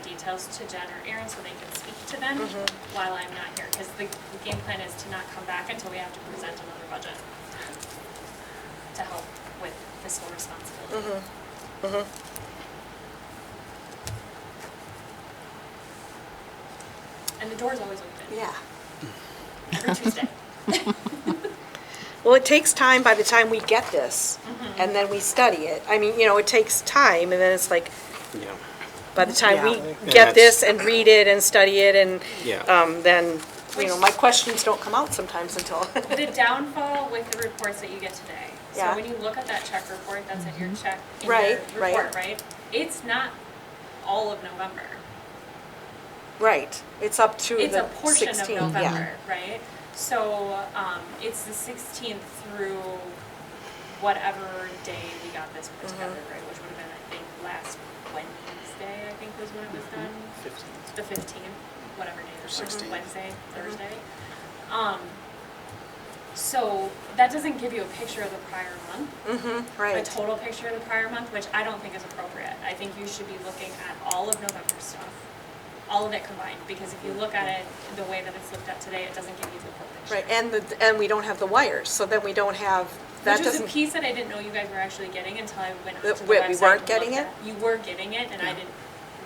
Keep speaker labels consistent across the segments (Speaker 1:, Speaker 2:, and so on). Speaker 1: details to Jen or Aaron so they can speak to them
Speaker 2: Mm-hmm.
Speaker 1: while I'm not here, because the the game plan is to not come back until we have to present another budget to help with fiscal responsibility.
Speaker 2: Mm-hmm.
Speaker 1: And the door's always open.
Speaker 2: Yeah.
Speaker 1: Every Tuesday.
Speaker 2: Well, it takes time by the time we get this
Speaker 1: Mm-hmm.
Speaker 2: and then we study it. I mean, you know, it takes time and then it's like,
Speaker 3: Yeah,
Speaker 2: by the time
Speaker 3: Yeah,
Speaker 2: we
Speaker 3: that's-
Speaker 2: get this and read it and study it and,
Speaker 3: yeah.
Speaker 2: um, then, you know, my questions don't come out sometimes until,
Speaker 1: The downfall with the reports that you get today, so
Speaker 2: Yeah. Mm-hmm.
Speaker 1: when you look at that check report, that's in your check, in your
Speaker 2: Right, right.
Speaker 1: report, right? It's not all of November.
Speaker 2: right, it's up to
Speaker 1: It's a
Speaker 2: the
Speaker 1: portion of
Speaker 2: sixteen, yeah.
Speaker 1: November, right? So, um, it's the sixteenth through whatever day we got this
Speaker 2: Mm-hmm.
Speaker 1: put together, right? Which would have been, I think, last Wednesday, I think was when it was done. the fifteenth, whatever day, or
Speaker 3: 16th.
Speaker 1: Wednesday,
Speaker 2: Mm-hmm.
Speaker 1: Thursday. Um, so that doesn't give you a picture of the prior month,
Speaker 2: Mm-hmm,
Speaker 1: a
Speaker 2: right,
Speaker 1: total picture of the prior month, which I don't think is appropriate. I think you should be looking at all of November stuff, all of it combined, because if you look at it the way that it's looked at today, it doesn't give you the full picture.
Speaker 2: right, and the, and we don't have the wires, so then we don't have, that
Speaker 1: Which was a
Speaker 2: doesn't,
Speaker 1: piece that I didn't know you guys were actually getting until I went onto the
Speaker 2: That
Speaker 1: website.
Speaker 2: we- we
Speaker 1: and
Speaker 2: weren't
Speaker 1: looked
Speaker 2: getting
Speaker 1: at
Speaker 2: it?
Speaker 1: You were getting it, and I didn't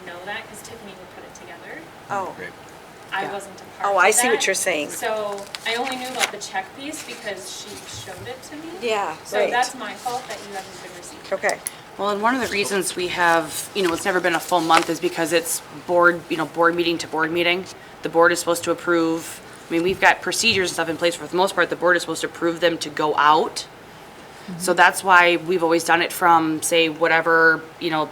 Speaker 1: know that, because Tiffany would put it together.
Speaker 2: oh,
Speaker 3: Right.
Speaker 1: I
Speaker 2: Yeah.
Speaker 1: wasn't a part of
Speaker 2: oh, I see what
Speaker 1: that.
Speaker 2: you're saying.
Speaker 1: So I only knew about the check piece because she showed it to me.
Speaker 2: Yeah,
Speaker 1: So
Speaker 2: right,
Speaker 1: that's my fault that you haven't been received.
Speaker 2: okay,
Speaker 4: Well, and one of the reasons we have, you know, it's never been a full month is because it's board, you know, board meeting to board meeting. The board is supposed to approve, I mean, we've got procedures and stuff in place, for the most part, the board is supposed to approve them to go out. So that's why we've always done it from, say, whatever, you know,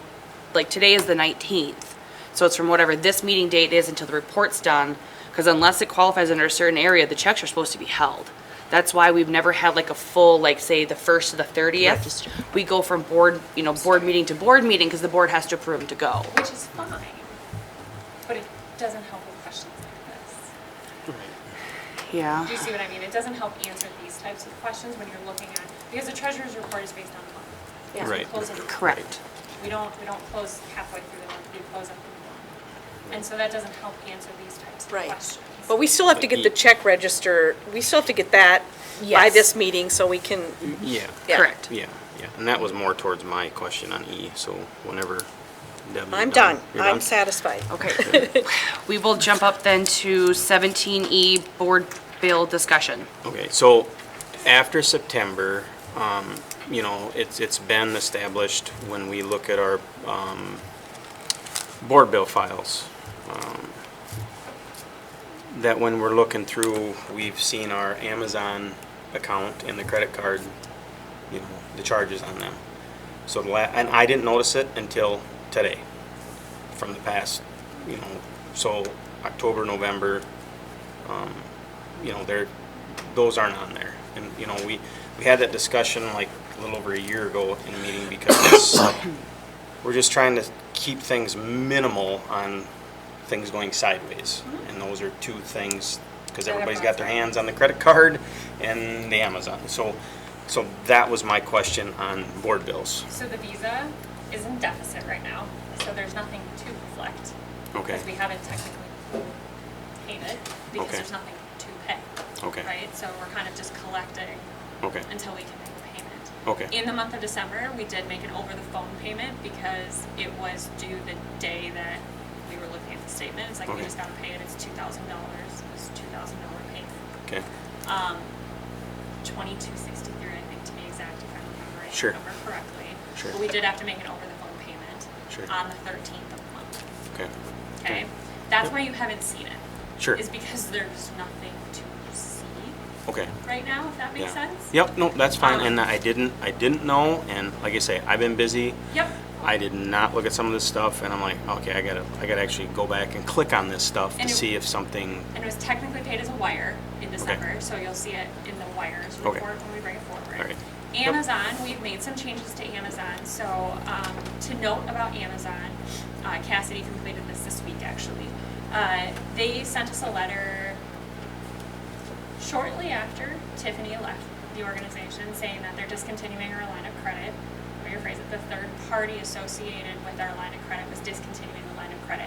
Speaker 4: like today is the 19th. So it's from whatever this meeting date is until the report's done, because unless it qualifies under a certain area, the checks are supposed to be held. That's why we've never had like a full, like, say, the 1st to the 30th. We go from board, you know, board meeting to board meeting, because the board has to approve them to go.
Speaker 1: Which is fine, but it doesn't help with questions like this.
Speaker 4: Yeah.
Speaker 1: Do you see what I mean? It doesn't help answer these types of questions when you're looking at, because the treasurer's report is based on the month.
Speaker 2: yeah.
Speaker 3: Right.
Speaker 1: Close of the month.
Speaker 4: Correct.
Speaker 1: We don't, we don't close halfway through the month, we close at the month. And so that doesn't help answer these types of
Speaker 2: Right.
Speaker 1: questions.
Speaker 2: But we still have to get the check register, we still have to get that by
Speaker 4: Yes.
Speaker 2: this meeting so we can,
Speaker 3: Yeah,
Speaker 2: Yeah.
Speaker 4: Correct.
Speaker 3: yeah, yeah. And that was more towards my question on E, so whenever Deb, you're
Speaker 2: I'm done,
Speaker 3: You're
Speaker 2: I'm satisfied.
Speaker 4: Okay. We will jump up then to 17E, board bill discussion.
Speaker 3: Okay, so after September, um, you know, it's, it's been established when we look at our, um, board bill files, um, that when we're looking through, we've seen our Amazon account and the credit card, you know, the charges on them. So the la, and I didn't notice it until today, from the past, you know, so October, November, um, you know, they're, those aren't on there. And, you know, we, we had that discussion like a little over a year ago in a meeting because we're just trying to keep things minimal on things going sideways. And those are two things,
Speaker 1: Mm-hmm.
Speaker 3: because
Speaker 1: That
Speaker 3: everybody's
Speaker 1: are
Speaker 3: got their hands on the credit card and the Amazon. So, so that was my question on board bills.
Speaker 1: So the visa is in deficit right now, so there's nothing to reflect.
Speaker 3: Okay,
Speaker 1: Because we haven't technically paid it, because
Speaker 3: Okay.
Speaker 1: there's nothing to pay,
Speaker 3: okay,
Speaker 1: right? So we're kind of just collecting
Speaker 3: okay,
Speaker 1: until we can make a payment.
Speaker 3: okay,
Speaker 1: In the month of December, we did make an over-the-phone payment because it was due the day that we were looking at the statement. It's like, we
Speaker 3: Okay.
Speaker 1: just gotta pay it, it's two thousand dollars, it's two thousand dollar payment.
Speaker 3: okay,
Speaker 1: Um, twenty-two sixty-three, I think, to be exact, if I'm remembering
Speaker 3: Sure.
Speaker 1: the number correctly.
Speaker 3: Sure.
Speaker 1: But we did have to make an over-the-phone payment
Speaker 3: Sure.
Speaker 1: on the thirteenth of the month,
Speaker 3: okay.
Speaker 1: okay? That's why you haven't seen it,
Speaker 3: Sure,
Speaker 1: is because there's nothing to see
Speaker 3: okay.
Speaker 1: right now, if that makes
Speaker 3: Yeah.
Speaker 1: sense?
Speaker 3: Yep, no, that's fine.
Speaker 1: Um,
Speaker 3: And I didn't, I didn't know. And like I say, I've been busy.
Speaker 1: Yep,
Speaker 3: I did not look at some of this stuff, and I'm like, okay, I gotta, I gotta actually go back and click on this stuff to
Speaker 1: And it-
Speaker 3: see if something.
Speaker 1: and it was technically paid as a wire in December, so you'll see it in the wires
Speaker 3: Okay.
Speaker 1: report when we bring it forward.
Speaker 3: All right. Yep.
Speaker 1: Amazon, we've made some changes to Amazon, so, um, to note about Amazon, uh, Cassidy completed this this week, actually. Uh, they sent us a letter shortly after Tiffany left the organization, saying that they're discontinuing our line of credit. Rephrase it, the third party associated with our line of credit was discontinuing the